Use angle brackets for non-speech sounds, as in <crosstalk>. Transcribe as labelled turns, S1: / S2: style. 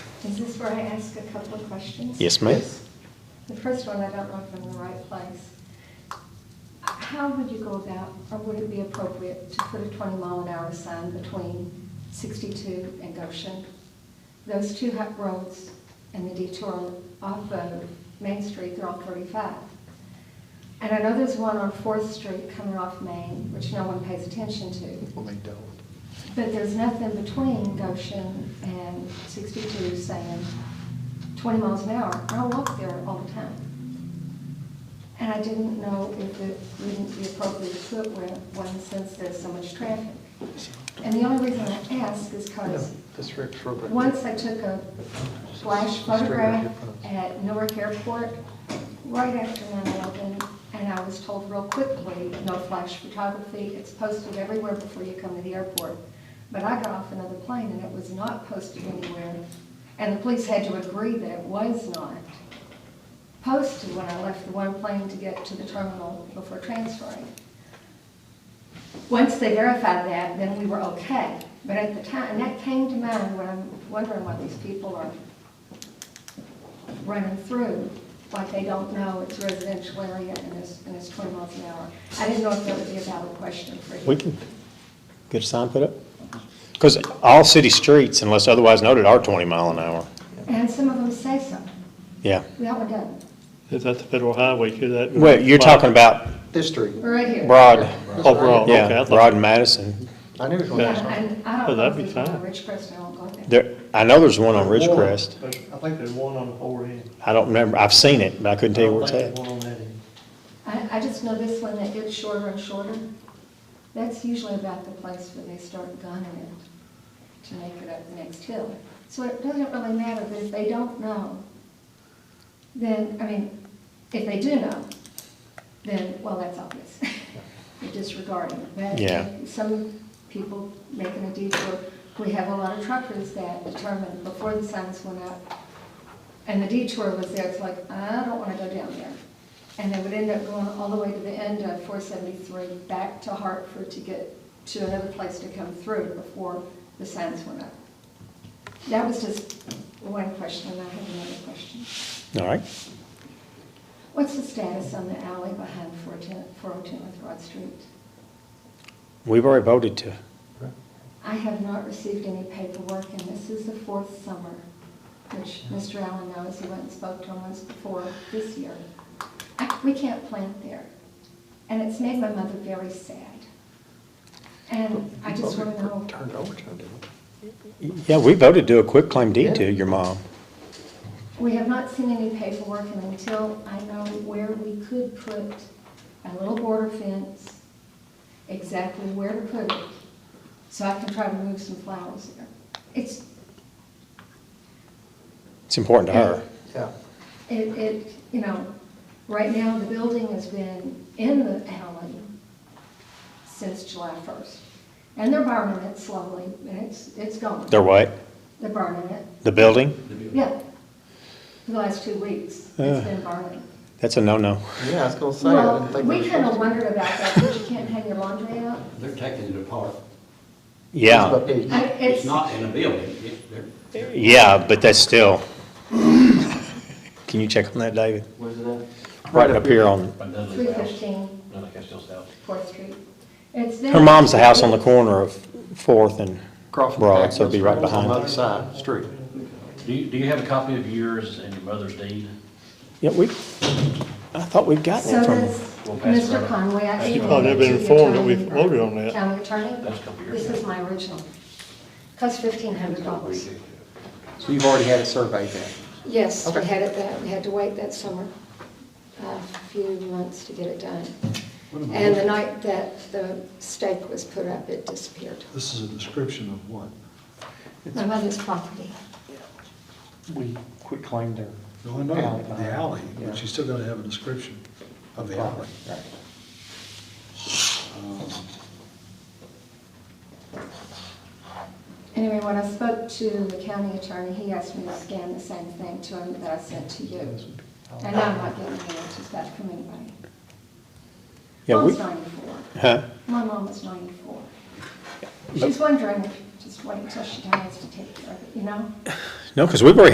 S1: Is this where I ask a couple of questions?
S2: Yes, ma'am.
S1: The first one, I don't know if I'm in the right place. How would you go about, or would it be appropriate to put a 20 mile an hour sign between 62 and Goshen? Those two hot roads and the detour off of Main Street, they're all 35. And I know there's one on Fourth Street coming off Main, which no one pays attention to.
S3: Well, they don't.
S1: But there's nothing between Goshen and 62 saying 20 miles an hour. I walk there all the time. And I didn't know if it wouldn't be appropriate to put where one since there's so much traffic. And the only reason I ask is because
S3: This Rick's real quick.
S1: once I took a flash photograph at Newark Airport, right after 9/11, and I was told real quickly, no flash photography, it's posted everywhere before you come to the airport. But I got off another plane and it was not posted anywhere, and the police had to agree that it was not posted when I left the one plane to get to the terminal before transferring. Once they verified that, then we were okay. But at the time, and that came to mind when I'm wondering what these people are running through, like they don't know it's residential area and it's, and it's 20 miles an hour. I didn't know if that would be a valid question for you.
S2: We can get a sign put up. Because all city streets, unless otherwise noted, are 20 mile an hour.
S1: And some of them say so.
S2: Yeah.
S1: That one doesn't.
S4: Is that the federal highway, could that?
S2: Well, you're talking about
S3: This street.
S1: Right here.
S2: Broad,
S4: Oh, Broad, okay,
S2: yeah,
S4: I
S2: Broad
S4: thought,
S2: and Madison.
S3: I knew it was going
S1: Yeah,
S3: to.
S1: and I
S4: Oh,
S1: don't know
S4: that'd
S1: if
S4: be
S1: there's one on
S4: fine.
S1: Ridgecrest, I won't go there.
S2: There, I know there's one on Ridgecrest.
S4: I think there's one on the fore end.
S2: I don't remember, I've seen it, but I couldn't tell you where it's
S4: I don't
S2: at.
S4: think there's one on that end.
S1: I, I just know this one that gets shorter and shorter. That's usually about the place where they start gunning it to make it up the next hill. So it doesn't really matter, but if they don't know, then, I mean, if they do know, then, well, that's obvious. <laughs> You're disregarding it. But
S2: Yeah.
S1: Some people making a detour, we have a lot of truckers that determined before the signs went up, and the detour was there, it's like, I don't wanna go down there. And they would end up going all the way to the end of four seventy-three, back to Hartford to get to another place to come through before the signs went up. That was just one question, and I have another question.
S2: All right.
S1: What's the status on the alley behind 410 402 North Broad Street?
S2: We've already voted to,
S1: I have not received any paperwork, and this is the fourth summer, which Mr. Allen knows, he went and spoke to him once before this year. I- We can't plant there, and it's made my mother very sad. And I just want to know,
S3: Turned it over to him, didn't we?
S2: yeah, we voted to do a quick claim deed to your mom.
S1: we have not seen any paperwork, and until I know where we could put a little border fence, exactly where to put it, so I can try to move some flowers there. It's,
S2: It's important to her.
S3: Yeah.
S1: It, it, you know, right now, the building has been in the alley since July first. And they're burning it slowly, and it's, it's gone.
S2: They're what?
S1: They're burning it,
S2: The building?
S1: yeah. For the last two weeks, it's been burning.
S2: That's a no-no.
S3: Yeah, I was going to say, I
S1: Well,
S3: didn't think.
S1: we kind of wondered about that, because you can't hang your laundry out.
S5: They're taking it apart.
S2: Yeah,
S1: I-
S5: It's not in a building, It- they're,
S2: yeah, but that's still. <coughs> Can you check on that, David?
S6: Where's it at?
S2: Right up here on,
S6: By Dudley's
S1: Three
S6: house.
S1: fifteen
S6: Dudley Castell's house.
S1: Fourth Street. It's there.
S2: her mom's the house on the corner of Fourth and
S3: Across from
S2: Broad, so it'd be right
S3: Packman's, On the
S2: behind.
S3: other side, street.
S6: Do you, do you have a copy of yours and your mother's deed?
S2: Yeah, we, I thought we'd gotten
S1: So
S2: it from
S1: does
S2: her.
S6: We'll pass it
S1: Mr.
S6: on.
S1: Conway. I
S6: You
S1: emailed
S4: probably
S1: it
S4: have been
S1: to the
S4: informed that we
S1: attorney.
S4: voted on that.
S1: County attorney?
S6: That's a couple years
S1: This
S6: ago.
S1: is my original. Cost fifteen hundred dollars.
S3: So you've already had it surveyed then?
S1: Yes, we
S3: Okay.
S1: had it, that- we had to wait that summer, a few months to get it done. And the night that the stake was put up, it disappeared.
S7: This is a description of what?
S1: My mother's property.
S3: We quit claimed their.
S7: No, I know,
S3: alley
S7: the
S3: behind.
S7: alley,
S3: Yeah.
S7: but you still gotta have a description of the alley.
S3: Right.
S1: Anyway, when I spoke to the county attorney, he asked me to scan the same thing to him that I sent to you. And I'm not getting any answers back from anybody.
S2: Yeah, we-
S1: Mom's ninety-four.
S2: Huh?
S1: My mom is ninety-four. She's wondering, if just wait until she dies to take care of it, you know?
S2: No, because we've already